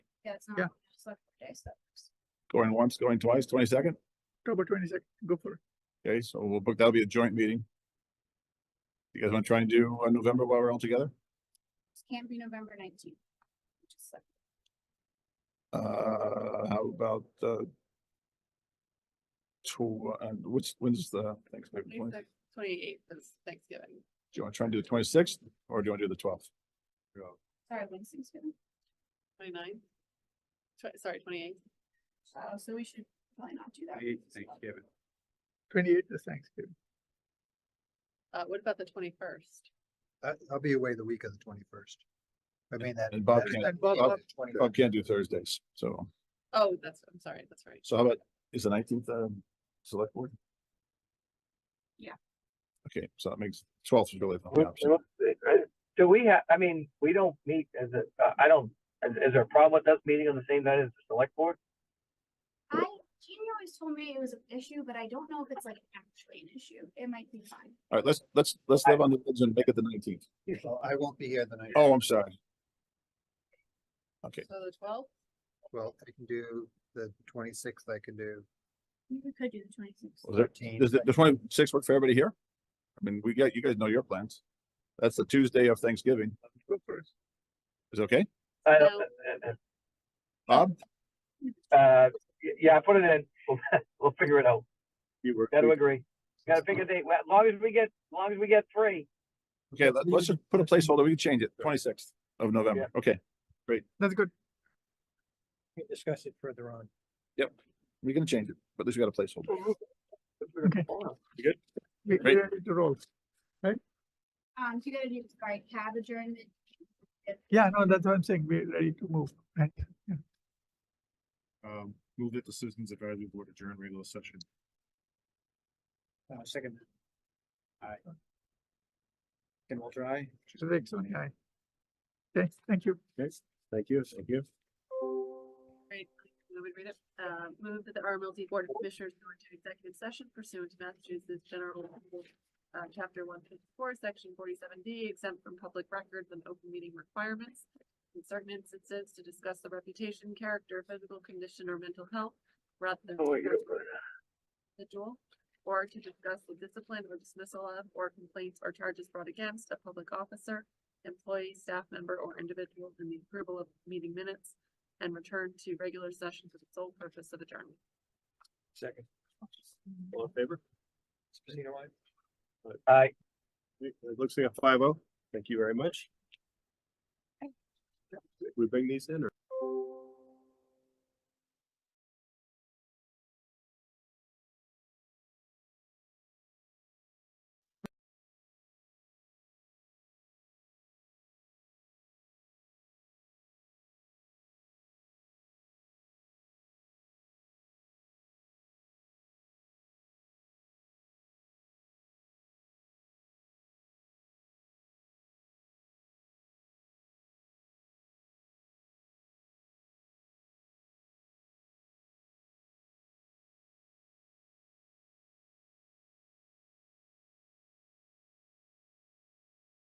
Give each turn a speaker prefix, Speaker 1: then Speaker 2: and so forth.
Speaker 1: Yeah, it's not.
Speaker 2: Yeah.
Speaker 1: select board day, so that works.
Speaker 3: Going once, going twice, twenty-second?
Speaker 2: October twenty-second, go for it.
Speaker 3: Okay, so we'll book, that'll be a joint meeting. You guys want to try and do uh, November while we're all together?
Speaker 1: It Can't be November nineteenth. Just like,
Speaker 3: Uh, how about, uh, to, uh, which, when's the, thanks, maybe, do
Speaker 4: Twenty-eighth is Thanksgiving.
Speaker 3: you want to try and do the twenty-sixth or do you want to do the twelfth?
Speaker 1: sorry, when's Thanksgiving?
Speaker 4: Twenty-ninth? Tw- sorry, twenty-eighth.
Speaker 1: Uh, so we should probably not do that.
Speaker 5: Thanksgiving.
Speaker 2: Twenty-eighth is Thanksgiving.
Speaker 4: Uh, what about the twenty-first?
Speaker 6: I, I'll be away the week of the twenty-first. I mean that.
Speaker 3: And Bob
Speaker 6: that-
Speaker 3: can't-
Speaker 6: that
Speaker 2: And Bob-
Speaker 6: week of
Speaker 3: Bob-
Speaker 6: the 21st.
Speaker 3: I Oh, can't do Thursdays, so,
Speaker 4: Oh, that's, I'm sorry, that's right.
Speaker 3: so how about, is the nineteenth, um, select board?
Speaker 1: Yeah.
Speaker 3: Okay, so that makes twelfth is really the only
Speaker 7: Well,
Speaker 3: option.
Speaker 7: well, uh, Do we have, I mean, we don't meet as a, uh, I don't, is, is there a problem with us meeting on the same night as the select board?
Speaker 1: I, Jeannie always told me it was an issue, but I don't know if it's like actually an issue. It might be fine.
Speaker 3: All right, let's, let's, let's live on the edge and make it the nineteenth.
Speaker 6: Well, I won't be here the night.
Speaker 3: Oh, I'm sorry. Okay.
Speaker 4: So the twelfth,
Speaker 6: Well, I can do the twenty-sixth, I can do
Speaker 1: We could do the twenty-sixth.
Speaker 3: Was there,
Speaker 6: thirteen.
Speaker 3: does the twenty-six work for everybody here? I mean, we got, you guys know your plans. That's the Tuesday of Thanksgiving.
Speaker 2: Go for it.
Speaker 3: Is it okay?
Speaker 7: I
Speaker 4: No.
Speaker 7: don't, uh,
Speaker 3: Bob?
Speaker 7: uh, uh, y- yeah, put it in. We'll, we'll figure it out.
Speaker 3: You work.
Speaker 7: Gotta
Speaker 3: too.
Speaker 7: agree. Gotta pick a date. Well, As long as we get, as long as we get three.
Speaker 3: Okay, let- let's just put a placeholder. We can change it. Twenty-sixth of November. Okay,
Speaker 2: That's good.
Speaker 6: We can Discuss it further on.
Speaker 3: we can change it, but at least we got a placeholder.
Speaker 2: Okay. We,
Speaker 3: Great.
Speaker 2: we're ready to roll.
Speaker 1: Um, you gotta do, right, cab adjournment.
Speaker 2: Yeah, no, that's what I'm saying. We're ready to move, right?
Speaker 5: Um, move that the Citizens Advisory Board adjourn regular session.
Speaker 6: Uh, second. Aye. Can we try?
Speaker 2: Rick, Sony, aye. Okay, thank you.
Speaker 5: Thank you, thank you.
Speaker 4: right, let me read it. Uh, move that the RMLD Board of Commissioners go into executive session pursuant to Massachusetts General Law, uh, chapter one fifty-four, section forty-seven D, exempt from public records and open meeting requirements. In certain instances, to discuss the reputation, character, physical condition, or mental health, rather than
Speaker 7: Oh, wait, you're-
Speaker 4: individual or to discuss the discipline or dismissal of or complaints or charges brought against a public officer, employee, staff member, or individual in the approval of meeting minutes and return to regular session for the sole purpose of adjournment.
Speaker 5: Second. All in favor?
Speaker 7: Aye.
Speaker 5: It looks like a five oh. Thank you very much. We bring these in or?